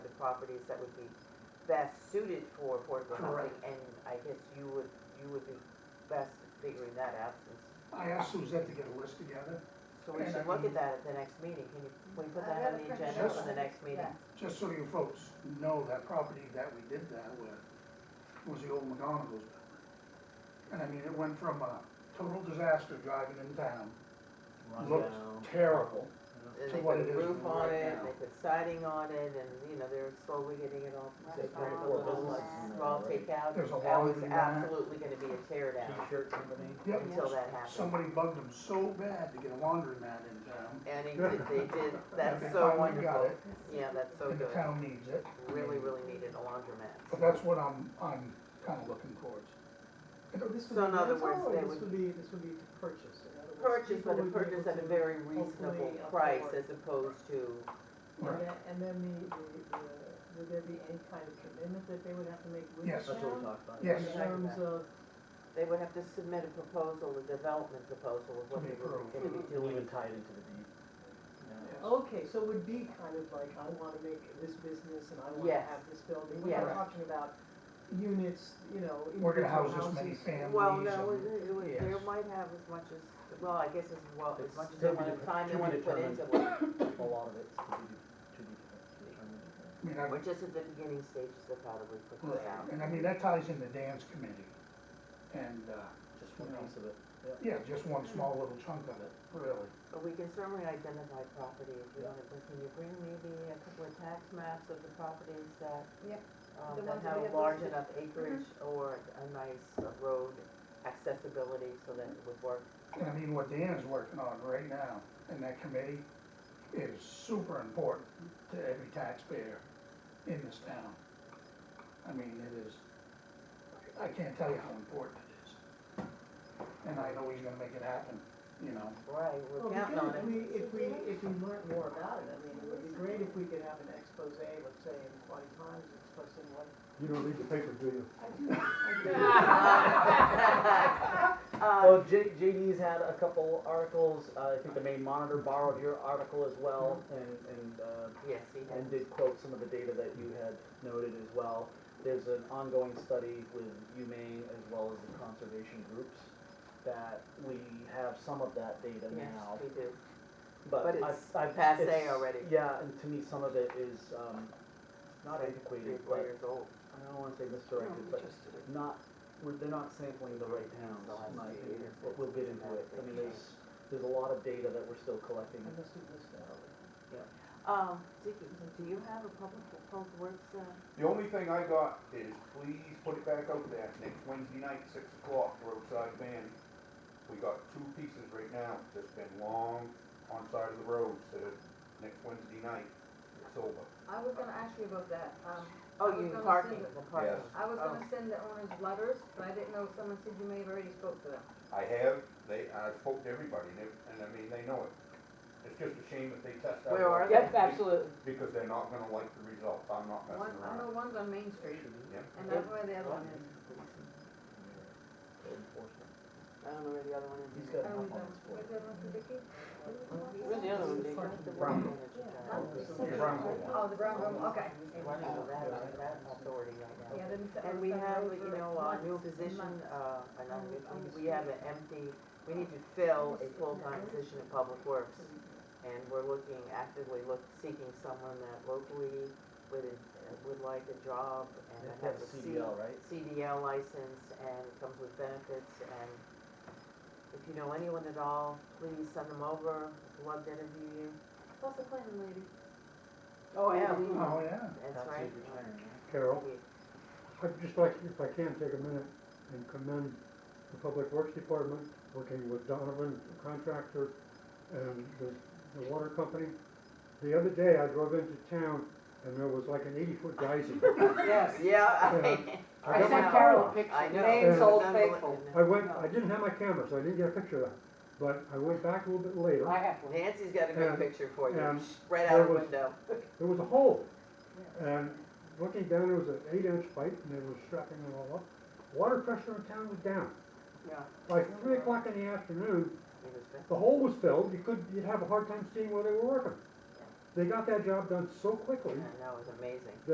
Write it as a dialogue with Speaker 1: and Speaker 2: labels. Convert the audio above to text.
Speaker 1: properties that would be best suited for affordable housing.
Speaker 2: Correct.
Speaker 1: And I guess you would, you would be best at figuring that out since,
Speaker 2: I asked Suzette to get a list together,
Speaker 1: so we
Speaker 2: And I
Speaker 1: should look at
Speaker 2: can-
Speaker 1: that at the next meeting. Can you, can we put that
Speaker 3: I've got
Speaker 1: on
Speaker 3: it
Speaker 1: the
Speaker 3: printed
Speaker 1: agenda for
Speaker 3: out.
Speaker 1: the next meeting?
Speaker 3: Yeah.
Speaker 2: just so you folks know that property that we did that with was the old McDonald's building. And I mean, it went from a total disaster driving in town, looked
Speaker 1: down.
Speaker 2: terrible,
Speaker 1: And
Speaker 2: to
Speaker 1: they
Speaker 2: what
Speaker 1: put a
Speaker 2: it is
Speaker 1: roof on
Speaker 2: right
Speaker 1: it, and
Speaker 2: now.
Speaker 1: they put siding on it, and, you know, they're slowly getting it all.
Speaker 3: Right.
Speaker 1: they're
Speaker 3: Right.
Speaker 1: trying to put
Speaker 3: Four
Speaker 1: a little,
Speaker 3: businesses
Speaker 4: in there,
Speaker 1: small
Speaker 4: right?
Speaker 1: takeout.
Speaker 2: There's a
Speaker 1: That was
Speaker 2: laundry in there.
Speaker 1: absolutely gonna be a tear down
Speaker 4: T-shirt company.
Speaker 2: Yep.
Speaker 1: until that happened.
Speaker 2: Somebody bugged them so bad to get a laundromat in town.
Speaker 1: And he did, they did,
Speaker 2: They
Speaker 1: that's so
Speaker 2: finally
Speaker 1: wonderful.
Speaker 2: got it,
Speaker 1: Yeah, that's so
Speaker 2: And the
Speaker 1: good.
Speaker 2: town needs it.
Speaker 1: Really, really needed a laundromat.
Speaker 2: But that's what I'm, I'm kinda looking towards. And it-
Speaker 5: This would
Speaker 1: So
Speaker 5: be
Speaker 1: in other
Speaker 5: rental,
Speaker 1: words,
Speaker 5: or
Speaker 1: they would-
Speaker 5: This would be, this would be to purchase, in other words.
Speaker 1: Purchase, but
Speaker 5: people
Speaker 1: a
Speaker 5: would be able
Speaker 1: purchase at a
Speaker 5: to-
Speaker 1: very reasonable
Speaker 5: hopefully
Speaker 1: price
Speaker 5: afford.
Speaker 1: as opposed to,
Speaker 5: And then, and then the, the- the, would there be any kind of commitment that they would have to make with the
Speaker 2: Yes.
Speaker 4: That's what we
Speaker 5: town?
Speaker 4: talked about.
Speaker 2: Yes.
Speaker 5: In terms of,
Speaker 1: they would have to submit a proposal, a development proposal of what
Speaker 2: To
Speaker 1: they
Speaker 2: be
Speaker 1: were
Speaker 2: approved.
Speaker 1: gonna be
Speaker 4: We'll
Speaker 1: doing.
Speaker 4: even tie it into the deed.
Speaker 2: Yes.
Speaker 5: okay, so it would be kind of like, I wanna make this business and I wanna
Speaker 1: Yes.
Speaker 5: have this building. We're
Speaker 1: Yes.
Speaker 5: not talking about units, you know,
Speaker 2: We're
Speaker 5: individual
Speaker 2: gonna house
Speaker 5: houses.
Speaker 2: this many families.
Speaker 1: Well, no,
Speaker 2: and-
Speaker 1: it, it, would- they
Speaker 4: Yes.
Speaker 1: might have as much as, well, I guess as well, as
Speaker 4: It's
Speaker 1: much as
Speaker 4: to
Speaker 1: they
Speaker 4: be
Speaker 1: want
Speaker 4: deter-
Speaker 1: time
Speaker 4: to
Speaker 1: they
Speaker 4: be
Speaker 1: want to put
Speaker 4: determined.
Speaker 1: into it.
Speaker 4: A lot of it's to be, to be determined.
Speaker 2: I mean, I-
Speaker 1: We're just at the beginning stages of how to we put this out.
Speaker 2: And I mean, that ties into Dan's committee. And, uh,
Speaker 4: Just one piece of it.
Speaker 2: yeah, just one small little chunk of it, really.
Speaker 1: But we can certainly identify property if you want to, can you bring maybe a couple of tax maps of the properties that,
Speaker 3: Yep.
Speaker 1: um,
Speaker 3: The
Speaker 1: that
Speaker 3: ones that
Speaker 1: have
Speaker 3: we
Speaker 1: a
Speaker 3: have
Speaker 1: large
Speaker 3: listed.
Speaker 1: enough acreage or a nice uh, road accessibility so that it would work?
Speaker 2: And I mean, what Dan's working on right now in that committee is super important to every taxpayer in this town. I mean, it is, I can't tell you how important it is. And I know he's gonna make it happen, you know.
Speaker 1: Right, we're
Speaker 5: Well, we
Speaker 1: counting on
Speaker 5: could, Oh, if
Speaker 1: it.
Speaker 5: we, if we, if we learned more about it, I mean, it would be great if we could have an expose, let's say, in twenty times, expressing what
Speaker 6: You don't read the paper, do you?
Speaker 3: I do, I do.
Speaker 1: Um,
Speaker 4: Well, J, JD's had a couple articles, uh, I think the main monitor borrowed your article as well, and, and, uh,
Speaker 1: Yes, he has.
Speaker 4: and did quote some of the data that you had noted as well. There's an ongoing study with UMaine as well as the conservation groups that we have some of that data
Speaker 1: Yes,
Speaker 4: now.
Speaker 1: we do.
Speaker 4: But
Speaker 1: But
Speaker 4: I-
Speaker 1: it's
Speaker 4: I-
Speaker 1: passé
Speaker 4: it's-
Speaker 1: already.
Speaker 4: Yeah, and to me, some of it is, um, not
Speaker 1: Three,
Speaker 4: antiquated,
Speaker 1: four
Speaker 4: but,
Speaker 1: years old.
Speaker 4: I don't wanna say misdirected, but not, we're, they're not sampling the right towns,
Speaker 1: The last
Speaker 4: in my
Speaker 1: few
Speaker 4: opinion,
Speaker 1: years,
Speaker 4: but we'll
Speaker 1: it's
Speaker 4: get
Speaker 1: been
Speaker 4: into it. I mean,
Speaker 1: dramatically
Speaker 4: there's, there's a lot of data that we're still collecting.
Speaker 5: I must have missed that already.
Speaker 1: Um, Dicky, do you have a public, public works, uh,
Speaker 7: The only thing I got is please put it back out there next Wednesday night, six o'clock, roadside van. We got two pieces right now, just been long on side of the road, so next Wednesday night, it's over.
Speaker 3: I was gonna ask you about that, um, I
Speaker 1: oh,
Speaker 3: was
Speaker 1: you mean
Speaker 3: gonna
Speaker 1: parking,
Speaker 3: send it.
Speaker 1: the parking?
Speaker 3: I was
Speaker 1: Oh.
Speaker 3: gonna send the owners letters, but I didn't know, someone said you may have already spoke to them.
Speaker 7: I have, they, I spoke to everybody and, they- and I mean, they know it. It's just a shame if they test out.
Speaker 1: Where are they?
Speaker 7: Yep, absolutely. Because they're not gonna like the results, I'm not
Speaker 3: One,
Speaker 7: messing
Speaker 3: I know
Speaker 7: around.
Speaker 3: one's on Main Street,
Speaker 7: Yep.
Speaker 3: and that's where the other one is.
Speaker 1: I don't know where the other one is.
Speaker 4: He's
Speaker 1: either.
Speaker 4: got-
Speaker 3: Um, where's the other one for Vicky?
Speaker 1: Where's the other one, Dick? What's the one that you got?
Speaker 7: The brown one.
Speaker 3: Oh, the brown room, okay.
Speaker 1: Why don't you have that- that authority right now?
Speaker 3: Yeah, then it's-
Speaker 1: And we have,
Speaker 3: it's
Speaker 1: you know, a new
Speaker 3: months and
Speaker 1: position,
Speaker 3: months.
Speaker 1: uh, another, we have an empty, we need to fill a full-time position in Public Works. And we're looking, actively look, seeking someone that locally would, would like a job and
Speaker 4: They
Speaker 1: that
Speaker 4: have
Speaker 1: has
Speaker 4: a
Speaker 1: a C-
Speaker 4: CDL, right?
Speaker 1: CDL license and comes with benefits and if you know anyone at all, please send them over, We'd love to interview you.
Speaker 3: Plus the planning lady.
Speaker 1: Oh, yeah.
Speaker 2: Oh, yeah.
Speaker 1: That's right.
Speaker 4: Absolute retirement, yeah.
Speaker 6: Carol,
Speaker 1: Yeah.
Speaker 6: I'd just like, if I can, take a minute and commend the Public Works Department, working with Donovan the Contractor and the, the water company. The other day, I drove into town and there was like an eighty-foot geyser.
Speaker 1: Yes, yeah.
Speaker 6: I got my
Speaker 1: know.
Speaker 6: Carol
Speaker 1: I know.
Speaker 6: Name's
Speaker 1: It's
Speaker 6: Old
Speaker 1: unbelievable.
Speaker 6: I went, I didn't have my camera, so I didn't get a picture of that, but I went back a little bit later.
Speaker 1: Nancy's got a good
Speaker 6: And-
Speaker 1: picture for you,
Speaker 6: and
Speaker 1: right out
Speaker 6: there
Speaker 1: the
Speaker 6: was-
Speaker 1: window.
Speaker 6: There was a hole. And looking down, there was an eight-inch pipe and they were strapping it all up. Water pressure in town was down.
Speaker 1: Yeah.
Speaker 6: By three o'clock in the afternoon,
Speaker 1: It was bad.
Speaker 6: The hole was filled, you could, you'd have a hard time seeing where they were working. They got that job done so quickly,
Speaker 1: I know, it was amazing.